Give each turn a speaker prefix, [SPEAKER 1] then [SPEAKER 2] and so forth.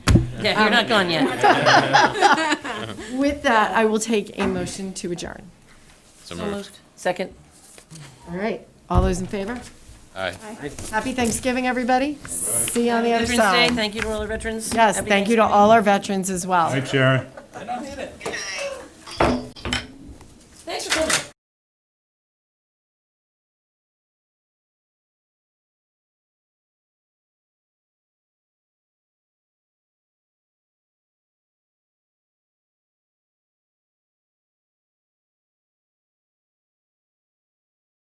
[SPEAKER 1] Yeah, you're not gone yet.
[SPEAKER 2] With that, I will take a motion to adjourn.
[SPEAKER 3] So moved.
[SPEAKER 1] Second?
[SPEAKER 2] All right, all those in favor?
[SPEAKER 3] Aye.
[SPEAKER 2] Happy Thanksgiving, everybody. See you on the other
[SPEAKER 1] Veterans Day,
[SPEAKER 2] side.
[SPEAKER 1] thank you to all the veterans.
[SPEAKER 2] Yes,
[SPEAKER 1] Happy
[SPEAKER 2] thank you to
[SPEAKER 1] Thanksgiving.
[SPEAKER 2] all our veterans as well.
[SPEAKER 4] Hi, Sharon.